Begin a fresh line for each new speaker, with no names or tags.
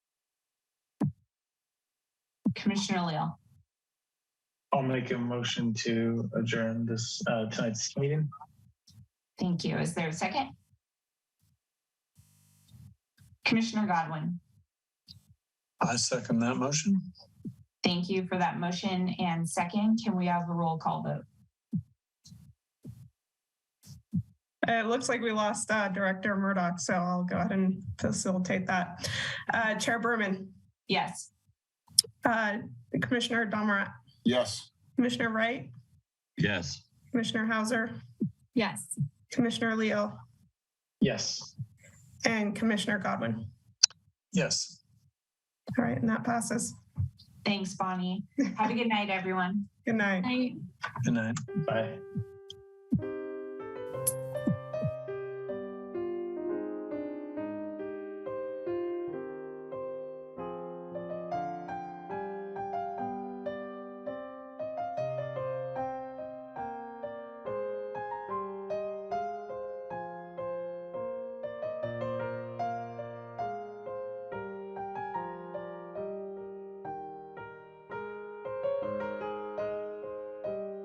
Commissioner Leal.
I'll make a motion to adjourn this uh, tonight's meeting.
Thank you. Is there a second? Commissioner Godwin,
I second that motion.
thank you for that motion and second. Can we have a roll call vote?
Uh, It looks like we lost uh, Director Murdoch, so I'll go ahead and facilitate that. Uh, Chair Berman,
Yes.
uh, Commissioner Domerat,
Yes.
Commissioner Wright,
Yes.
Commissioner Hauser,
Yes.
Commissioner Leo,
Yes.
and Commissioner Godwin.
Yes.
All right, and that passes.
Thanks, Bonnie. Have a good night, everyone.
Good night.
Good night. Bye.